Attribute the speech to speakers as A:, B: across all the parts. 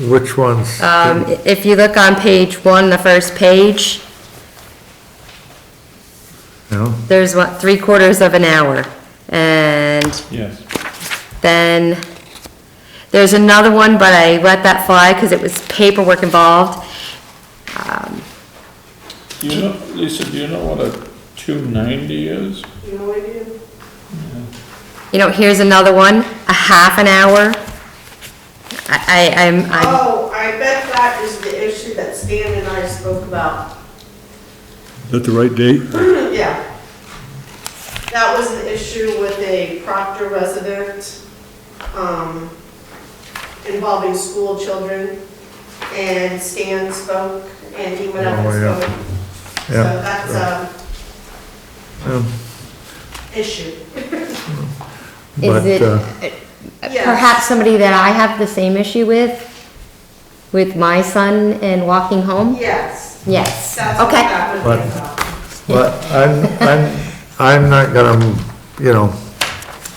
A: Which ones?
B: Uh,
C: Um, if you look on page one, the first page,
A: No?
C: there's what, three quarters of an hour. And
D: Yes.
C: then there's another one, but I let that fly because it was paperwork involved.
D: Do you know, Lisa, do you know what a two ninety is?
E: No idea.
C: You know, here's another one, a half an hour. I, I, I'm, I'm,
E: Oh, I bet that is the issue that Stan and I spoke about.
F: that the right date?
E: Yeah. That was the issue with a Proctor resident, um, involving school children. And Stan spoke and he went up and
A: Oh, yeah.
E: spoke. So
A: Yeah.
E: that's a
A: Um,
E: issue.
C: is
A: But, uh,
C: it,
E: Yes.
C: perhaps somebody that I have the same issue with, with my son and walking home?
E: Yes,
C: Yes,
E: that's what
C: okay.
E: that would be about.
A: But I'm, I'm, I'm not gonna, you know,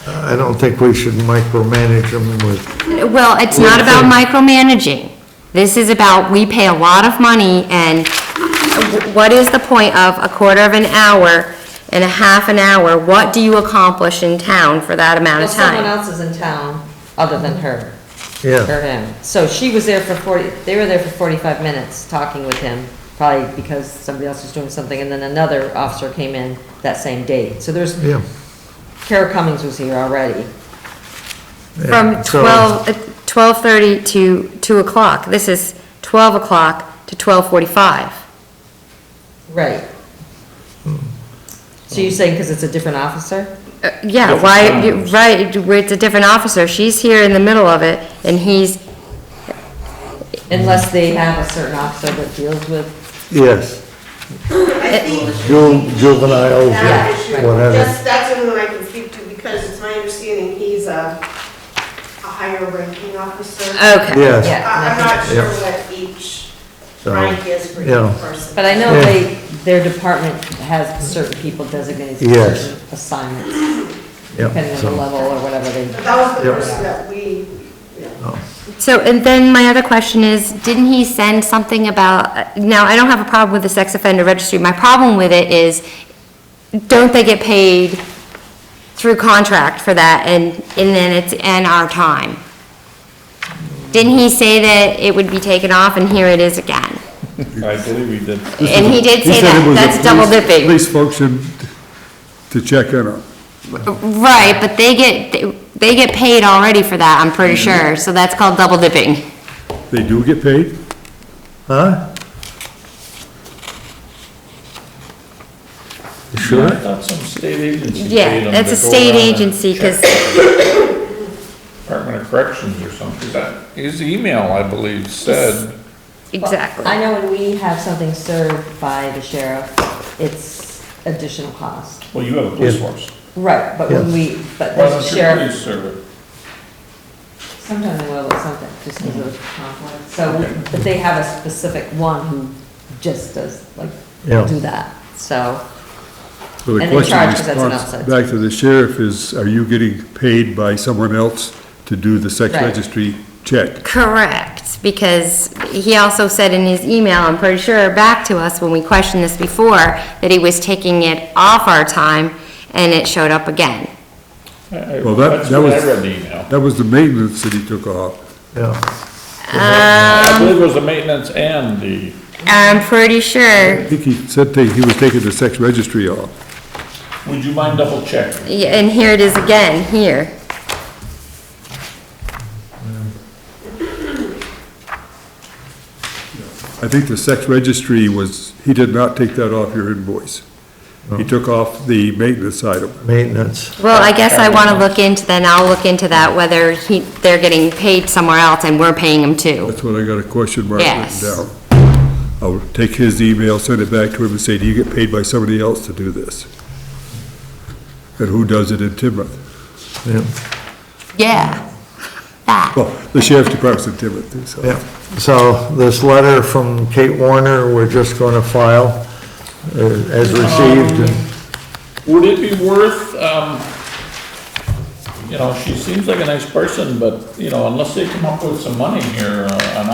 A: I don't think we should micromanage them with,
C: Well, it's not about micromanaging. This is about, we pay a lot of money, and what is the point of a quarter of an hour and a half an hour? What do you accomplish in town for that amount
B: Well,
C: of
B: someone
C: time?
B: else is in town other than her,
A: yeah.
B: or him. So she was there for forty, they were there for forty-five minutes talking with him, probably because somebody else was doing something, and then another officer came in that same day. So there's,
A: Yeah.
B: Kara Cummings was here already.
C: From
A: So-
C: 12, uh, 12:30 to 2 o'clock. This is 12 o'clock to 12:45.
B: Right. So you're saying because it's a different officer?
C: Uh, Yeah,
D: Different
C: why, you-
D: times.
C: right, where it's a different officer. She's here in the middle of it, and he's,
B: Unless they have a certain officer that deals with,
A: Yes,
B: Eh,
E: I think
A: ju- juveniles
E: that
A: or
E: issue,
A: whatever.
E: that's, that's one that I can speak to because it's my understanding he's a, a higher ranking officer.
C: okay.
A: Yes,
B: yeah.
E: I- I'm not sure
A: Yeah.
E: what each
A: So,
E: rank is for each
A: yeah.
E: person.
B: But I know
A: Yeah.
B: they, their department has certain people designated for
A: Yes.
B: certain assignments, depending
A: yeah,
B: on the
A: so,
B: level or whatever they.
E: But that was the
A: Yeah.
E: person that we, yeah.
A: oh,
C: So, and then my other question is, didn't he send something about, now, I don't have a problem with the sex offender registry, my problem with it is, don't they get paid through contract for that, and, and then it's in our time? Didn't he say that it would be taken off, and here it is again?
D: I believe we did.
C: And he did say
F: said it
C: that,
F: was a
C: that's double
F: police-
C: dipping.
F: Police function to check in on.
C: Right, but they get, they get paid already for that, I'm pretty sure, so that's called double dipping.
F: They do get paid?
A: huh? You
D: I
A: Sure,
D: thought some state agency paid
C: Yeah,
D: them
C: that's
D: to
C: a
D: go
C: state
D: around and
C: agency, because
D: Department of Corrections or something. That- His email, I believe, said,
C: Exactly.
B: I know when we have something served by the sheriff, it's additional cost.
D: well, you have a police force.
B: Right, but when
A: Yes.
B: we, but
D: Why
B: the
D: don't your
B: sheriff,
D: police serve it?
B: sometimes they will, but sometimes just because of conflict. So, but they have a specific one who just does, like,
A: Yeah.
B: do that, so.
F: So the
B: And they
F: question
B: charge 'cause that's an
F: response
B: outside.
F: Back to the sheriff is, are you getting paid by someone else to do the sex
B: Right.
F: registry check?
C: Correct, because he also said in his email, I'm pretty sure, back to us when we questioned this before, that he was taking it off our time, and it showed up again.
D: I- I-
F: Well, that-
D: That's
F: that
D: what I
F: was-
D: read the
C: Um,
D: email.
F: That was the maintenance that he took off.
A: yeah.
D: I believe it was the maintenance and the,
C: I'm pretty
F: I
C: sure,
F: think he said that he was taking the sex registry off.
D: would you mind double checking?
C: yeah, and here it is again, here.
F: I think the sex registry was, he did not take that off your invoice. He took off the maintenance item.
A: Maintenance,
C: Well, I guess I want to look into, then I'll look into that, whether he, they're getting paid somewhere else and we're paying them too.
F: That's what I got a question mark
C: Yes.
F: written down. I'll take his email, send it back to him and say, do you get paid by somebody else to do this? And who does it in Timoth?
A: yeah,
C: Yeah. That.
F: Well, the sheriff's department's in Timoth, so.
A: yeah. So this letter from Kate Warner, we're just gonna file uh, as received
B: Oh.
A: and
D: Would it be worth, um, you know, she seems like a nice person, but, you know, unless they come up with some money here, uh, an